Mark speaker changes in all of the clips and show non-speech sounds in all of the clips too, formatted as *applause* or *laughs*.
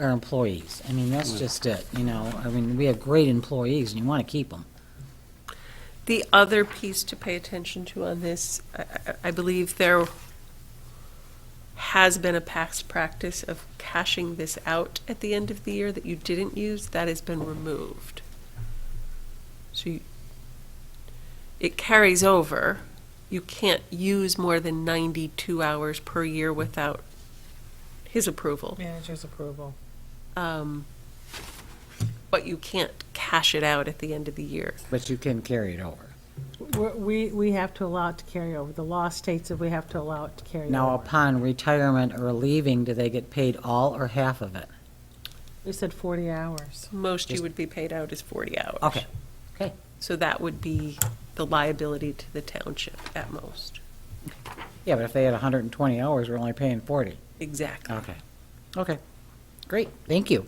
Speaker 1: our employees. I mean, that's just it, you know, I mean, we have great employees and you want to keep them.
Speaker 2: The other piece to pay attention to on this, I- I- I believe there has been a past practice of cashing this out at the end of the year that you didn't use, that has been removed. So you- it carries over. You can't use more than 92 hours per year without his approval.
Speaker 3: Manager's approval.
Speaker 2: Um, But you can't cash it out at the end of the year.
Speaker 1: But you can carry it over.
Speaker 3: We're- We, we have to allow it to carry over. The law states that we have to allow it to carry
Speaker 1: Now, uh,
Speaker 3: over.
Speaker 1: upon retirement or leaving, do they get paid all or half of it?
Speaker 3: We said 40 hours.
Speaker 2: Most you
Speaker 1: Just-
Speaker 2: would be paid out is 40 hours.
Speaker 1: Okay, okay.
Speaker 2: So that would be the liability to the township at most.
Speaker 1: Yeah, but if they had 120 hours, we're only paying 40.
Speaker 2: Exactly.
Speaker 1: Okay. Okay, great, thank you.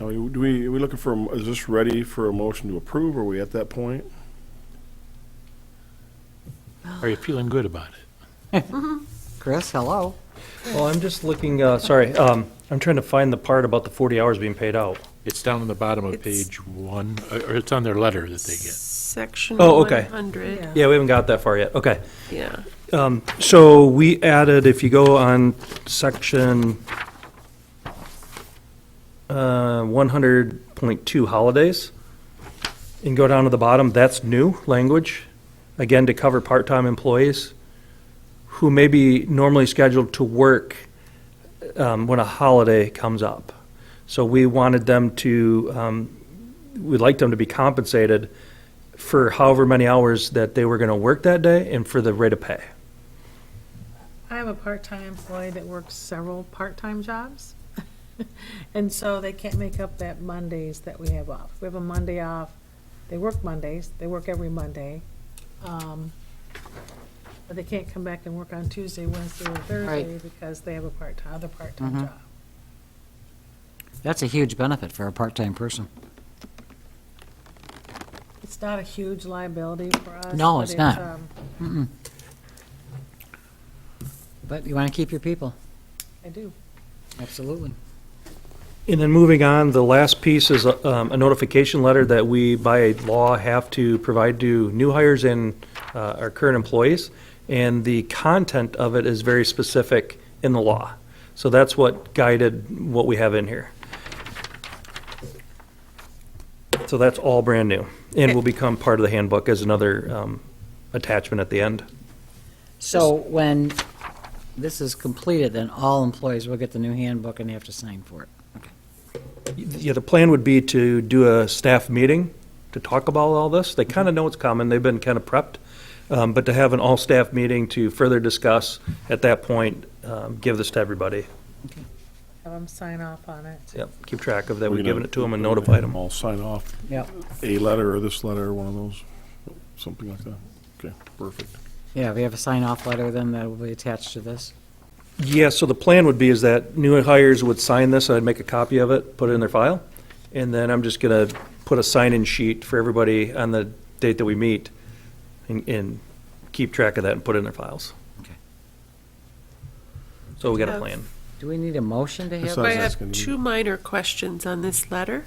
Speaker 4: Now, we- do we, are we looking for, a mo- is this ready for a motion to approve? Are we at that point?
Speaker 5: Are you feeling good about it?
Speaker 1: Chris, hello?
Speaker 6: Well, I'm just looking, uh, sorry, um, I'm trying to find the part about the 40 hours being paid out.
Speaker 5: It's down on the bottom of
Speaker 2: It's-
Speaker 5: page one, or or it's on their letter that they get.
Speaker 2: Section
Speaker 6: Oh, okay.
Speaker 2: 100,
Speaker 6: Yeah, we haven't got that far yet, okay.
Speaker 2: yeah.
Speaker 6: So we added, if you go on section uh, 100.2 holidays, and go down to the bottom, that's new language, again, to cover part-time employees who may be normally scheduled to work um, when a holiday comes up. So we wanted them to, um, we'd like them to be compensated for however many hours that they were going to work that day and for the rate of pay.
Speaker 3: I have a part-time employee that works several part-time jobs. *laughs* And so they can't make up that Mondays that we have off. We have a Monday off. They work Mondays. They work every Monday. Um, But they can't come back and work on Tuesday, Wednesday, or Thursday because they have a part, other part-time
Speaker 1: Mm-hmm.
Speaker 3: job.
Speaker 1: That's a huge benefit for a part-time person.
Speaker 3: It's not a huge liability for us.
Speaker 1: No,
Speaker 3: but
Speaker 1: it's not.
Speaker 3: um,
Speaker 1: But you want to keep your people,
Speaker 3: I do.
Speaker 1: absolutely.
Speaker 6: And then moving on, the last piece is a um, a notification letter that we by law have to provide to new hires and uh, our current employees. And the content of it is very specific in the law. So that's what guided what we have in here. So that's all brand new and will become part of the handbook as another um, attachment at the end.
Speaker 1: So when this is completed, then all employees will get the new handbook and they have to sign for it. Okay.
Speaker 6: Yeah, the plan would be to do a staff meeting to talk about all this. They kind of know it's coming, they've been kind of prepped. Um, But to have an all-staff meeting to further discuss, at that point, um, give this to everybody.
Speaker 3: Have them sign off on it.
Speaker 6: Yep, keep track of that,
Speaker 4: We're
Speaker 6: we've
Speaker 4: gonna-
Speaker 6: given it to them and
Speaker 4: we're gonna
Speaker 6: notified
Speaker 4: have
Speaker 6: them.
Speaker 4: All sign off,
Speaker 1: Yep.
Speaker 4: a letter or this letter, one of those, something like that. Okay, perfect.
Speaker 1: Yeah, we have a sign-off letter then that will be attached to this.
Speaker 6: Yeah, so the plan would be is that new hires would sign this, I'd make a copy of it, put it in their file, and then I'm just going to put a sign-in sheet for everybody on the date that we meet and- and keep track of that and put it in their files.
Speaker 1: Okay.
Speaker 6: So we got a
Speaker 2: Yeah.
Speaker 6: plan.
Speaker 1: Do we need a motion to
Speaker 4: Yes,
Speaker 1: have?
Speaker 4: I
Speaker 2: I
Speaker 4: was
Speaker 2: have
Speaker 4: asking you.
Speaker 2: two minor questions on this letter.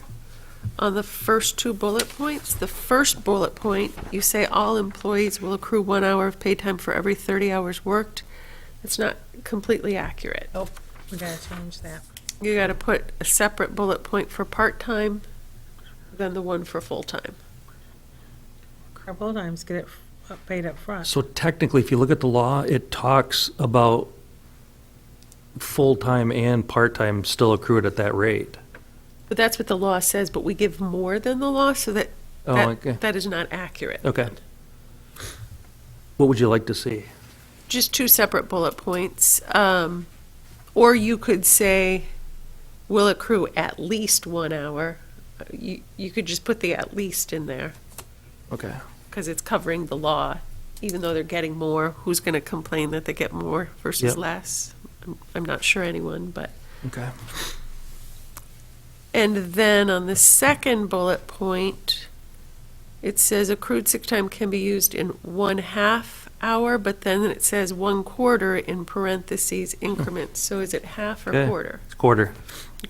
Speaker 2: On the first two bullet points, the first bullet point, you say all employees will accrue one hour of pay time for every 30 hours worked. It's not completely accurate.
Speaker 3: We gotta change that.
Speaker 2: You got to put a separate bullet point for part-time than the one for full-time.
Speaker 3: Our bowl times get it f- up- paid up front.
Speaker 6: So technically, if you look at the law, it talks about full-time and part-time still accrued at that rate.
Speaker 2: But that's what the law says, but we give more than the law, so that,
Speaker 6: Oh, okay,
Speaker 2: that, that is not accurate.
Speaker 6: okay. What would you like to see?
Speaker 2: Just two separate bullet points. Um, or you could say, will accrue at least one hour. You, you could just put the at least in there,
Speaker 6: Okay.
Speaker 2: because it's covering the law. Even though they're getting more, who's going to complain that they get more versus
Speaker 6: Yep.
Speaker 2: less? I'm, I'm not sure anyone, but.
Speaker 6: Okay.
Speaker 2: And then on the second bullet point, it says accrued sick time can be used in one half hour, but then it says one quarter in parentheses increments. So is it half or
Speaker 6: Okay.
Speaker 2: quarter?
Speaker 6: It's quarter.